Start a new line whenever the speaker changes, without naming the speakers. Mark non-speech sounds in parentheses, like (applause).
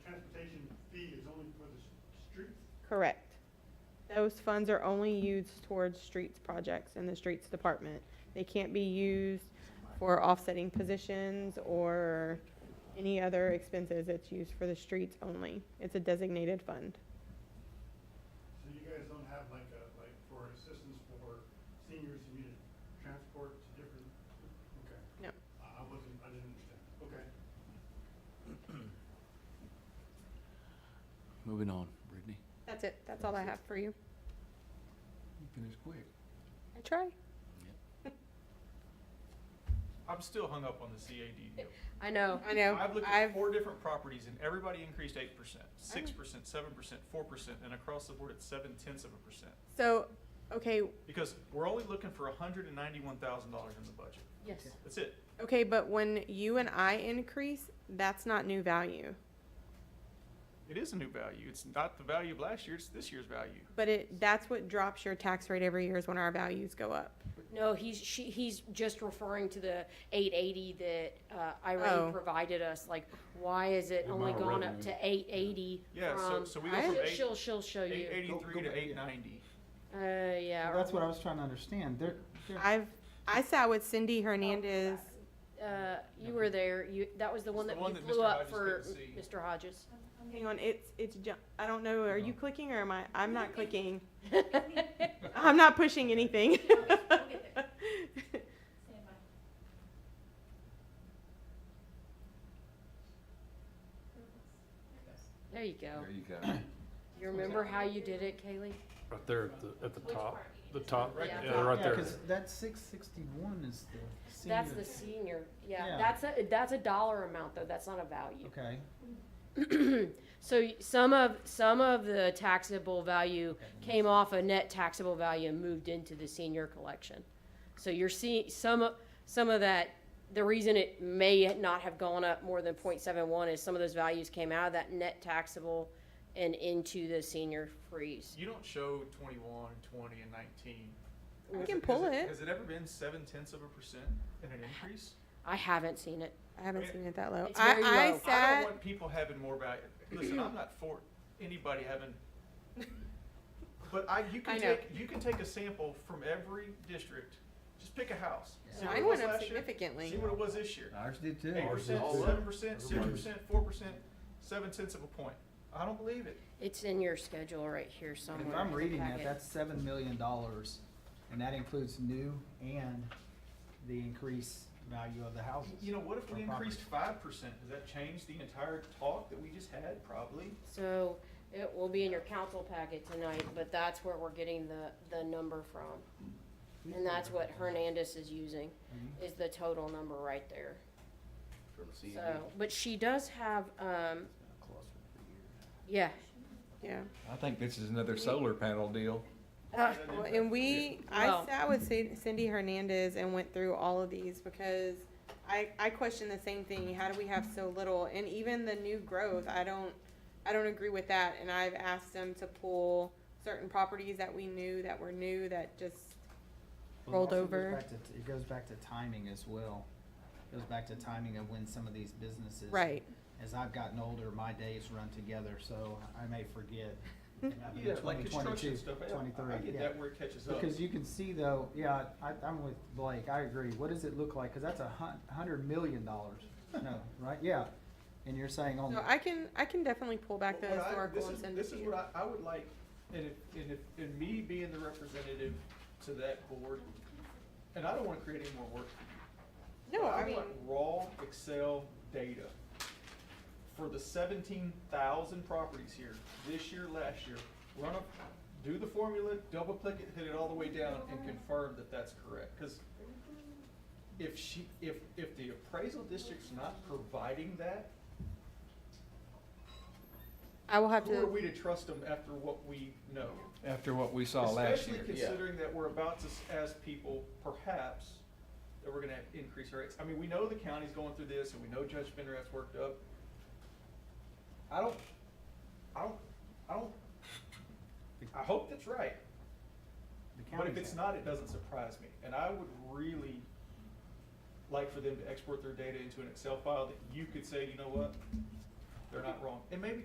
Correct. Those funds are only used towards streets projects in the streets department. They can't be used for offsetting positions or any other expenses. It's used for the streets only. It's a designated fund.
So you guys don't have like a, like for assistance for seniors who need to transport to different, okay.
No.
I I wasn't, I didn't understand, okay.
Moving on, Brittany.
That's it. That's all I have for you.
You finished quick.
I try.
I'm still hung up on the CAD deal.
I know.
I know.
I've looked
I've- Mm.
at four different properties and everybody increased eight percent, six percent, seven percent, four percent, and across the board it's seven tenths of a percent.
So, okay,
Because we're only looking for hundred and ninety-one thousand dollars in the budget.
Yes.
That's it.
okay, but when you and I increase, that's not new value.
It is a new value. It's not the value of last year, it's this year's value.
But it, that's what drops your tax rate every year is when our values go up.
No, he's she, he's just referring to the 880 that uh, Irene
Oh.
provided us. Like, why is it
The
only
amount of
gone up
revenue.
to 880?
Yeah, so-
from,
so we
go
she'll,
from
eight-
she'll she'll show
Eight
you.
eighty-three to eight ninety.
Uh, yeah. or-
That's what I was trying to understand. There, there,
I've, I sat with Cindy Hernandez.
Uh, you were there. You that was the one
It's the
that
one
you
that
blew
Mr.
up
Hodges
for
couldn't see.
Mr. Hodges.
Hang on, it's, it's, ju- I don't know, are you clicking or am I, I'm not clicking. I'm
I'm
not pushing anything.
There you go.
There you go.
You remember how you did it, Kaylee?
Right there at the, at the top, the top,
Right
yeah,
there.
right
yeah,
there.
because that six sixty-one is the senior.
That's the senior. Yeah.
Yeah.
That's a that's a dollar amount though. That's not a value.
Okay,
So y- some of, some of the taxable value came off a net taxable value and moved into the senior collection. So you're seeing some, of- some of that, the reason it may not have gone up more than 0.71 is some of those values came out of that net taxable and into the senior freeze.
You don't show twenty-one, twenty, and nineteen.
I
Has
can pull
has
it.
Has it ever been seven tenths of a percent in an increase?
I haven't seen it.
I haven't seen it that low.
It's
I,
very low.
I
I don't
sat,
want people having more value. Listen, I'm not for anybody having. But I, you
I
can
know.
take, you can take a sample from every district, just pick a house. see what it
mine
was
went up
last year,
significantly.
See what it was this year.
Ours did too.
Eight percent,
All
seven
up.
percent, six percent, four percent, seven tenths of a point. I don't believe it.
It's in your schedule right here somewhere.
if I'm
in the
reading that,
packet.
that's seven million dollars, and that includes new and the increased value of the houses.
You know, what if we
Or property.
increased five percent? Does that change the entire talk that we just had? Probably.
So it will be in your council packet tonight, but that's where we're getting the, the number from. And that's what Hernandez is using, is the total number right there.
From C
So, but she does have, um, yeah.
yeah.
I think this is another solar panel deal.
Uh,
Well, And we, I
Well-
sat with Cin- Cindy Hernandez and went through all of these because I, I question the same thing. How do we have so little? And even the new growth, I don't, I don't agree with that. And I've asked them to pull certain properties that we knew that were new that just
Well, it
rolled
also goes
over.
back to- It goes back to timing as well. It Goes back to timing of when some of these businesses.
Right.
As I've gotten older, my days run together, so I may
(laughs)
forget.
Yeah, like construction
2022,
stuff. I- I-
23,
I get
yeah.
that where it catches up.
Because you can see though, yeah, I, I'm with Blake, I agree, what does it look like, cause that's a hun- hundred million dollars, no, right, yeah, and you're saying oh, only,
So I can, I can definitely pull back the
What I- this
historical and
is-
send it
This
to
is
you.
what I, I would like, and if, and if, and me being the representative to that board, and I don't wanna create any more work. for you,
No,
but
I mean,
want Raw Excel data for the seventeen thousand properties here, this year, last year, run up, do the formula, double click it, hit it all the way down and confirm that that's correct, cause if she, if, if the appraisal district's not providing that,
I will have
who are we
to,
to trust them after what we know?
After what we saw last year.
Especially considering that we're about to s- ask people, perhaps, that we're gonna have increase our rates. I mean, we know the county's going through this, and we know Judge Bender has worked up. I don't, I don't, I don't, I hope that's right,
the
but if
county's
it's
at.
not, it doesn't surprise me. And I would really like for them to export their data into an Excel file that you could say, you know what? They're not wrong. And maybe